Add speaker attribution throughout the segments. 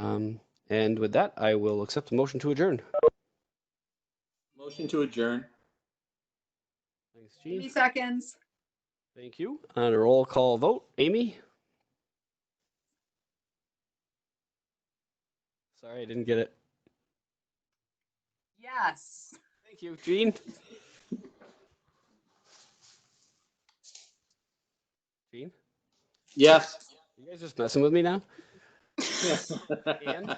Speaker 1: Um, and with that, I will accept the motion to adjourn.
Speaker 2: Motion to adjourn.
Speaker 1: Thanks,
Speaker 3: Three
Speaker 1: Gene.
Speaker 3: seconds.
Speaker 1: Thank you. On a roll call vote, Amy? Sorry, I didn't get it.
Speaker 3: Yes.
Speaker 1: Thank you, Gene. Gene,
Speaker 2: Yes.
Speaker 1: you guys just messing with me now? Ann?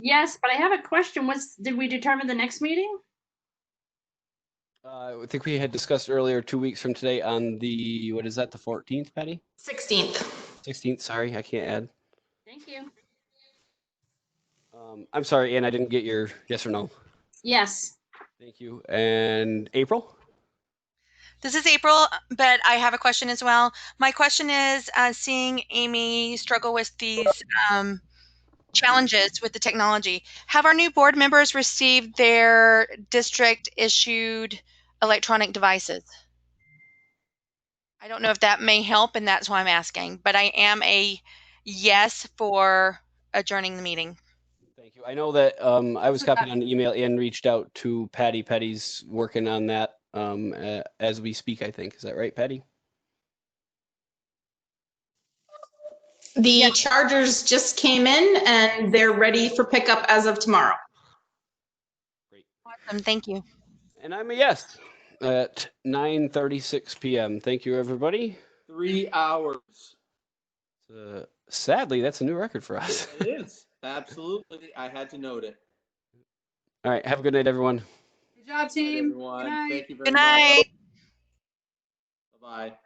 Speaker 4: Yes, but I have a question. Was, did we determine the next meeting?
Speaker 1: Uh, I think we had discussed earlier, two weeks from today on the, what is that, the 14th, Patty?
Speaker 5: 16th.
Speaker 1: 16th, sorry, I can't add.
Speaker 4: Thank you.
Speaker 1: Um, I'm sorry, Ann, I didn't get your yes or no.
Speaker 4: Yes.
Speaker 1: Thank you. And April?
Speaker 6: This is April, but I have a question as well. My question is uh, seeing Amy struggle with these um, challenges with the technology, have our new board members received their district issued electronic devices? I don't know if that may help, and that's why I'm asking, but I am a yes for adjourning the meeting.
Speaker 1: Thank you. I know that um, I was
Speaker 3: So that-
Speaker 1: copied on the email and reached out to Patty. Patty's working on that um, a- as we speak, I think. Is that right, Patty?
Speaker 5: The Chargers just came in and they're ready for pickup as of tomorrow.
Speaker 6: Um, thank you.
Speaker 1: And I'm a yes at 9:36 p.m. Thank you, everybody.
Speaker 2: Three hours.
Speaker 1: Uh, sadly, that's a new record for us.
Speaker 2: It is. Absolutely. I had to note it.
Speaker 1: All right. Have a good night, everyone.
Speaker 3: Good job,
Speaker 2: Good night,
Speaker 3: team.
Speaker 2: everyone.
Speaker 3: Good night.
Speaker 2: Thank you very
Speaker 6: Good
Speaker 2: much.
Speaker 6: night.
Speaker 2: Bye-bye.